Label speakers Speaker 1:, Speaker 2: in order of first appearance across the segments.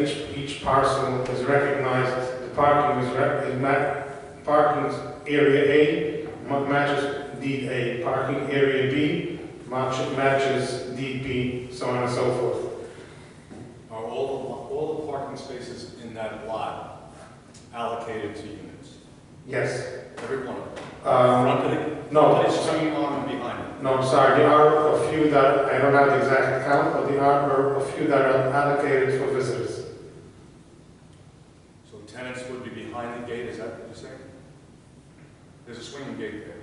Speaker 1: Each, each parcel is recognized, the parking is, rec- is ma- parking's area A ma- matches deed A, parking area B match, matches deed B, so on and so forth.
Speaker 2: Are all the, lo- all the parking spaces in that lot allocated to units?
Speaker 1: Yes.
Speaker 2: Every one of them?
Speaker 1: Um,
Speaker 2: Front of the,
Speaker 1: no,
Speaker 2: but it's coming on and behind it.
Speaker 1: no, I'm sorry, there are a few that, I don't have the exact count, but there are a few that are allocated for visitors.
Speaker 2: So tenants would be behind the gate, is that what you're saying? There's a swinging gate there.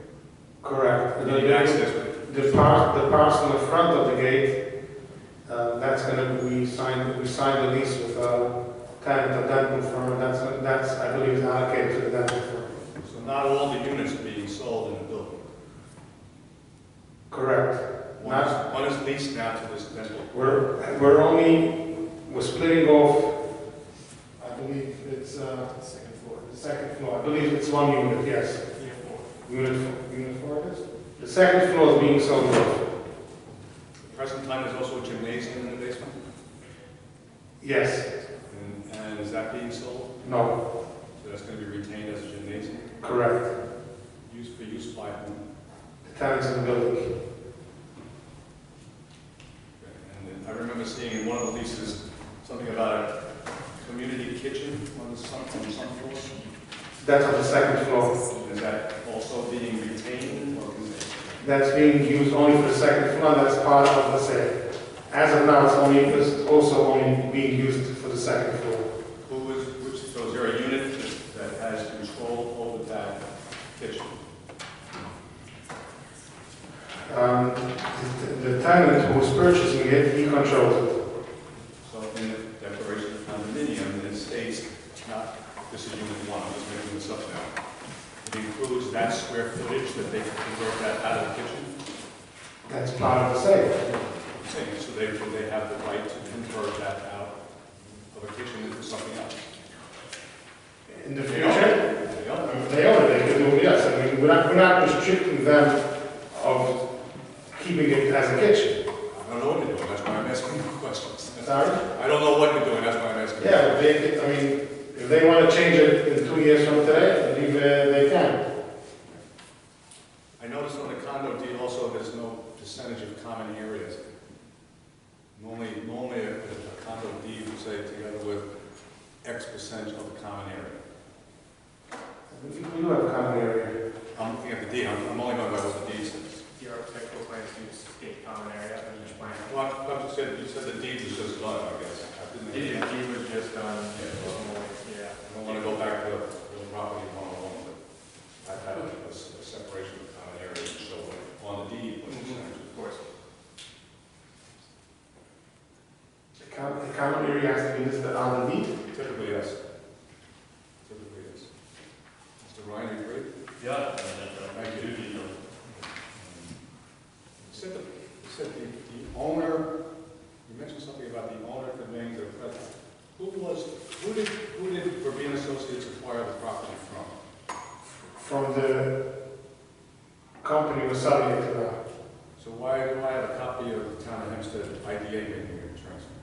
Speaker 1: Correct.
Speaker 2: You need access with it.
Speaker 1: The par, the parcel in front of the gate, uh, that's gonna, we signed, we signed the lease with, uh, kind of the dental firm, and that's, that's, I believe, is allocated to the dental firm.
Speaker 2: So not all the units are being sold in the building.
Speaker 1: Correct.
Speaker 2: One is, one is leased now to this dental.
Speaker 1: We're, we're only, we're splitting off, I believe it's, uh,
Speaker 3: Second floor.
Speaker 1: the second floor, I believe it's one unit, yes.
Speaker 3: Unit four.
Speaker 1: Unit, four- unit four it is? The second floor is being sold off,
Speaker 2: At present time, there's also a gymnasium in the basement,
Speaker 1: yes,
Speaker 2: and, and is that being sold?
Speaker 1: no,
Speaker 2: So that's gonna be retained as a gymnasium,
Speaker 1: correct.
Speaker 2: used for use by whom?
Speaker 1: The tenants in the building.
Speaker 2: And then I remember seeing in one of the leases, something about a community kitchen on the some, on some floor.
Speaker 1: That's on the second floor.
Speaker 2: Is that also being retained, or is it?
Speaker 1: that's being used only for the second floor, that's part of the sale. As of now, it's only, it's also only being used for the second floor.
Speaker 2: Who is, which, so is there a unit that that has control over that kitchen?
Speaker 1: Um, the the tenant who's purchasing it, he controls it.
Speaker 2: So in the declaration of condominium, it states, not, this is unit one, I'm just making this up now. It includes that square footage that they convert that out of the kitchen?
Speaker 1: That's part of the sale.
Speaker 2: Saying, so they, they have the right to convert that out of a kitchen into something else?
Speaker 1: In the future,
Speaker 2: They own it.
Speaker 1: they own it, they can do, yes, I mean, we're not, we're not restricting them of keeping it as a kitchen.
Speaker 2: I don't know what you're doing, that's why I'm asking you questions.
Speaker 1: Sorry?
Speaker 2: I don't know what you're doing, that's why I'm asking. you.
Speaker 1: Yeah, but they, they- I mean, if they want to change it in two years from today, I believe uh, they can.
Speaker 2: I noticed on the condo deed also, there's no percentage of common areas. Normally, normally a a condo deed would say together with X percent of the common area.
Speaker 1: We we do have a common area.
Speaker 2: I'm looking at the deed, I'm I'm only going by what the deed says.
Speaker 3: The architectural plans use state common area on each plan.
Speaker 2: Well, I- I just said, you said the deed was just done, I guess. I didn't- I
Speaker 3: It it was just on, yeah.
Speaker 2: don't want to go back to the property one-on-one, but I had a a s- a separation of common areas, so on the deed, what percentage.
Speaker 3: Of course.
Speaker 1: The com- the common area has to be listed on the deed.
Speaker 2: Typically, yes. Typically, yes. Mr. Ryan, you agree?
Speaker 4: Yeah, thank you. you know.
Speaker 2: You said, the- you said the, the owner, you mentioned something about the owner conveying the present. Who was, who did, who did Verbena Associates acquire the property from?
Speaker 1: From the company was selling it to them.
Speaker 2: So why do I have a copy of the town of Hempstead IDA manual transfer?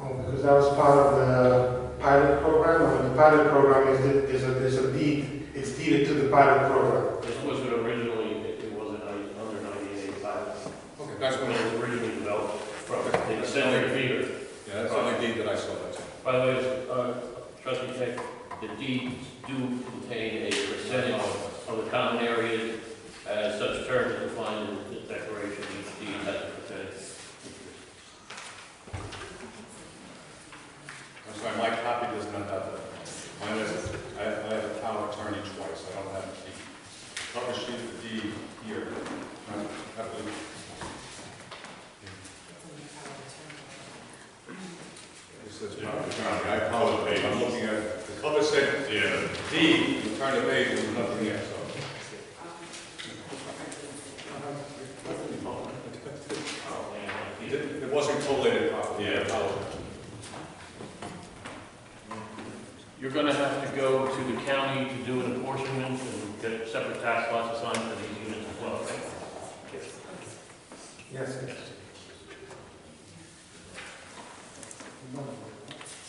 Speaker 1: Oh, because that was part of the pilot program, and the pilot program is, the- is a, is a deed, it's deeded to the pilot program.
Speaker 4: This wasn't originally, it it wasn't I- under 1985.
Speaker 2: Okay, that's
Speaker 4: When
Speaker 2: one
Speaker 4: it
Speaker 2: of
Speaker 4: was originally developed,
Speaker 2: Okay.
Speaker 4: the extended feeder.
Speaker 2: Yeah, that's the only deed that I saw, that's it.
Speaker 4: By the way, uh, trustee Tech, the deeds do contain a percentage of the common areas as such terms are defined in the declaration. Each deed has a percentage.
Speaker 2: I'm sorry, my copy does not have that. Mine is, I, I have a town attorney twice, I don't have the cover sheet of the deed here. I have the- This is town attorney, I apologize, I'm looking at, the cover said
Speaker 4: Yeah.
Speaker 2: deed, the attorney made, there was nothing there, so. It didn't- It wasn't collated properly, I
Speaker 4: Yeah.
Speaker 2: apologize.
Speaker 4: You're gonna have to go to the county to do an apportionment and get separate tax lots assigned to these units as well, right?
Speaker 1: Yes, yes.